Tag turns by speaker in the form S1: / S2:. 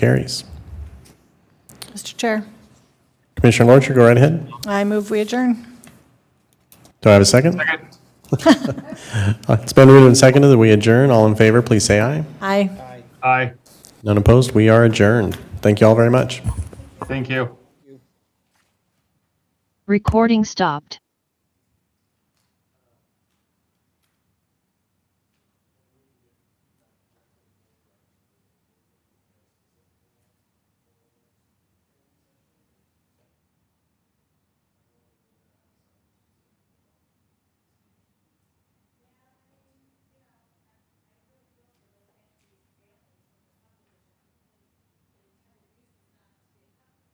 S1: Carries.
S2: Mr. Chair,
S1: Commissioner Lorcher, go right ahead.
S2: I move we adjourn.
S1: Do I have a second? Second. It's been moved and seconded that we adjourn. All in favor, please say aye.
S2: Aye.
S3: Aye.
S1: None opposed, we are adjourned. Thank you all very much.
S3: Thank you.
S4: Recording stopped.